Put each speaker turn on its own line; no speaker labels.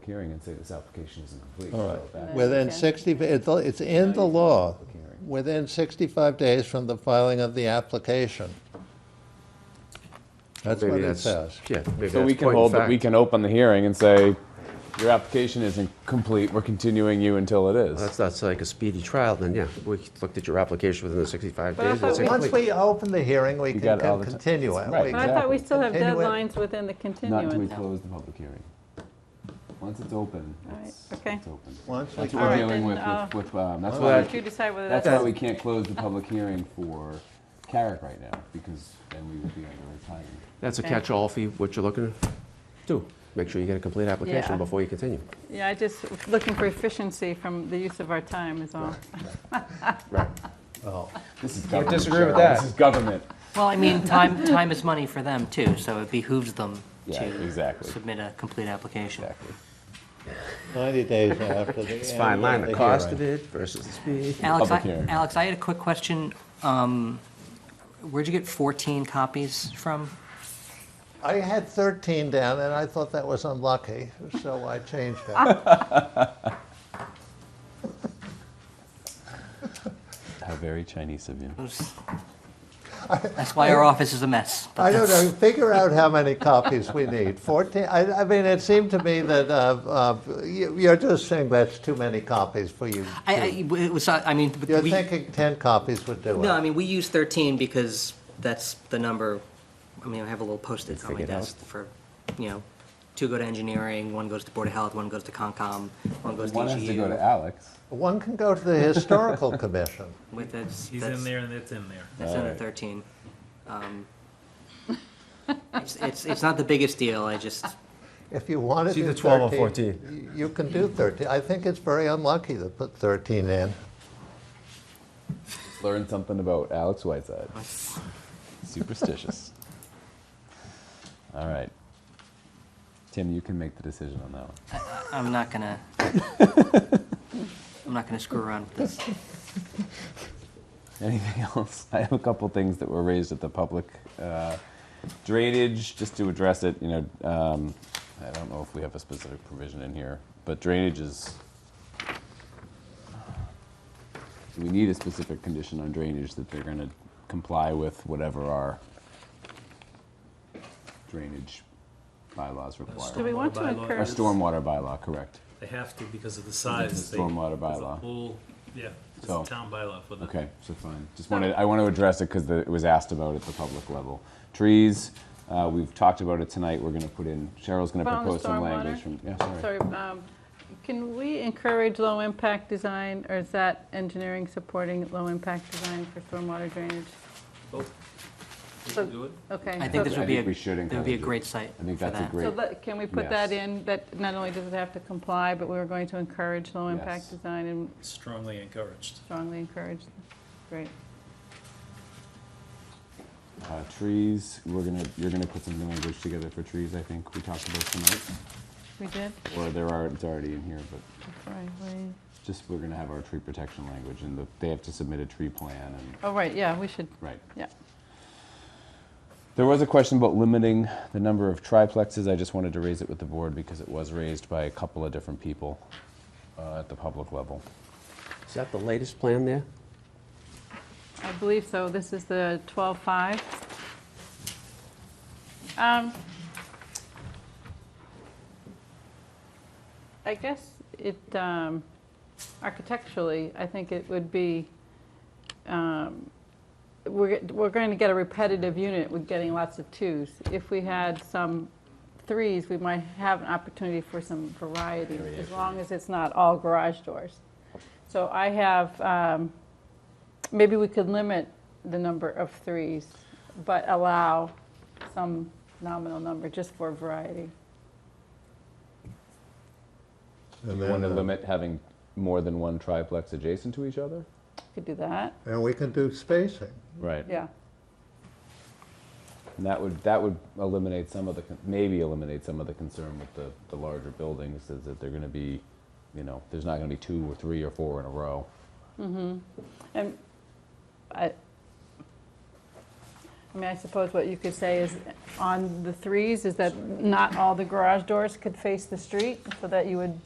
hearing and say this application isn't complete.
All right.
So back-
Within
Okay.
60, it's it's in the law,
Public hearing.
within 65 days from the filing of the application. That's what
Maybe
it
that's-
says.
Yeah, maybe
So we
that's
can
point
hold,
of
that we
fact.
can open the hearing and say, your application isn't complete, we're continuing you until it is.
That's, that's like a speedy trial, then, yeah, we looked at your application within the 65
But I
days.
thought
that's
we-
Once
complete.
we open the hearing, we
You
can
got it all the
can
ti-
continue it.
Right.
We-
But I thought we still have
Continue it.
deadlines within the
Not until we
continuance.
close the public hearing. Once it's open,
All right,
it's,
okay.
it's open.
Once we,
That's what we're
Alright,
dealing
then,
with,
uh,
with, with, um, that's
Well,
why,
that-
we-
You decide whether
that's
that's.
why we can't close the public hearing for Carrick right now, because then we would be under a time.
That's a
Okay.
catch-all fee, what you're looking to do. Make sure you get a complete
Yeah.
application before you continue.
Yeah, I just, looking for efficiency from the use of our time is all.
Right.
oh,
This is government.
disagree with
Cheryl.
that.
This is government.
Well, I mean, time, time is money for them too, so it behooves them
Yeah,
to
exactly.
submit a complete application.
Exactly.
90 days after the.
It's fine line, the
the
cost
hearing.
of it versus the speed.
Alex, I,
Public hearing.
Alex, I had a quick question. Um, Where'd you get 14 copies from?
I had 13 down, and I thought that was unlucky, so I changed it.
How very Chinese of you.
Those- That's why our office is a mess. but
I don't
that's-
know, figure out how many copies we need. 14, I, I mean, it seemed to me that uh, uh, you- you're just saying that's too many copies for you.
I, I, it was, I mean, but
You're
we,
thinking 10 copies would do it.
no, I mean, we use 13 because that's the number, I mean, I have a little post-it on my
Figured out.
desk for, you know, two go to engineering, one goes to Board of Health, one goes to Concom, one goes to E
One has to go
EGU.
to Alex.
One can go to the Historical Commission.
With that's,
He's
that's-
in there and it's in there.
That's under
Alright.
13. Um, It's, it's, it's not the biggest deal, I just,
If you want to
It's
do 13.
either 12 or
14. You can do 13. I think it's very unlucky to put 13 in.
Learn something about Alex Whiteside. Superstitious. All right. Tim, you can make the decision on that one.
I'm not gonna, I'm not gonna screw around with this.
Anything else? I have a couple things that were raised at the public uh, drainage, just to address it. You know, um, I don't know if we have a specific provision in here, but drainage is. Do we need a specific condition on drainage that they're going to comply with whatever our drainage bylaws
Do
require?
we want to
Bylaw.
Our
encourage?
stormwater bylaw, correct?
They have to because of the size. They-
Stormwater
there's a
bylaw.
whole- Yeah, it's
So-
a town bylaw for that.
Okay, so fine. Just wanted, I want to address it because it was asked about at the public level. Trees, uh, we've talked about it tonight, we're gonna put in, Cheryl's gonna
But on the
propose some
stormwater?
language from, yeah, sorry.
Sorry, um, can we encourage low-impact design, or is that engineering supporting low-impact design for stormwater drainage?
Oh, we
So-
can do it.
Okay.
I think
so-
this
I
would be
think
a,
we should
it would be a
encourage it.
great site
I think
for
that's a
that.
great,
So let- can we put that
Yes.
in, that not only does it have to comply, but we were going to encourage
Yes.
low-impact design and
Strongly encouraged.
strongly encourage? Great.
uh, trees, we're gonna, you're gonna put some language together for trees, I think, we talked about tonight.
We did?
Or there are, it's already in here, but
Right, we-
just, we're gonna have our tree protection language and the- they have to submit a tree plan and,
Oh, right, yeah, we should,
right.
yeah.
There was a question about limiting the number of triplexes. I just wanted to raise it with the board because it was raised by a couple of different people uh, at the public level.
Is that the latest plan there?
I believe so. This is the 12-5. Um, I guess it, um, architecturally, I think it would be, um, we're, we're going to get a repetitive unit with getting lots of twos. If we had some threes, we might have an opportunity for some variety, as long as it's not all garage doors. So I have, um, maybe we could limit the number of threes, but allow some nominal number just for variety.
And
You want to
then, uh,
limit having more than one triplex adjacent to each other?
Could do that,
And we can do spacing.
Right.
yeah.
And that would, that would eliminate some of the, con- maybe eliminate some of the concern with the, the larger buildings is that they're going to be, you know, there's not going to be two or three or four in a row.
And I, I mean, I suppose what you could say is, on the threes, is that not all the garage doors could face the street, so that you would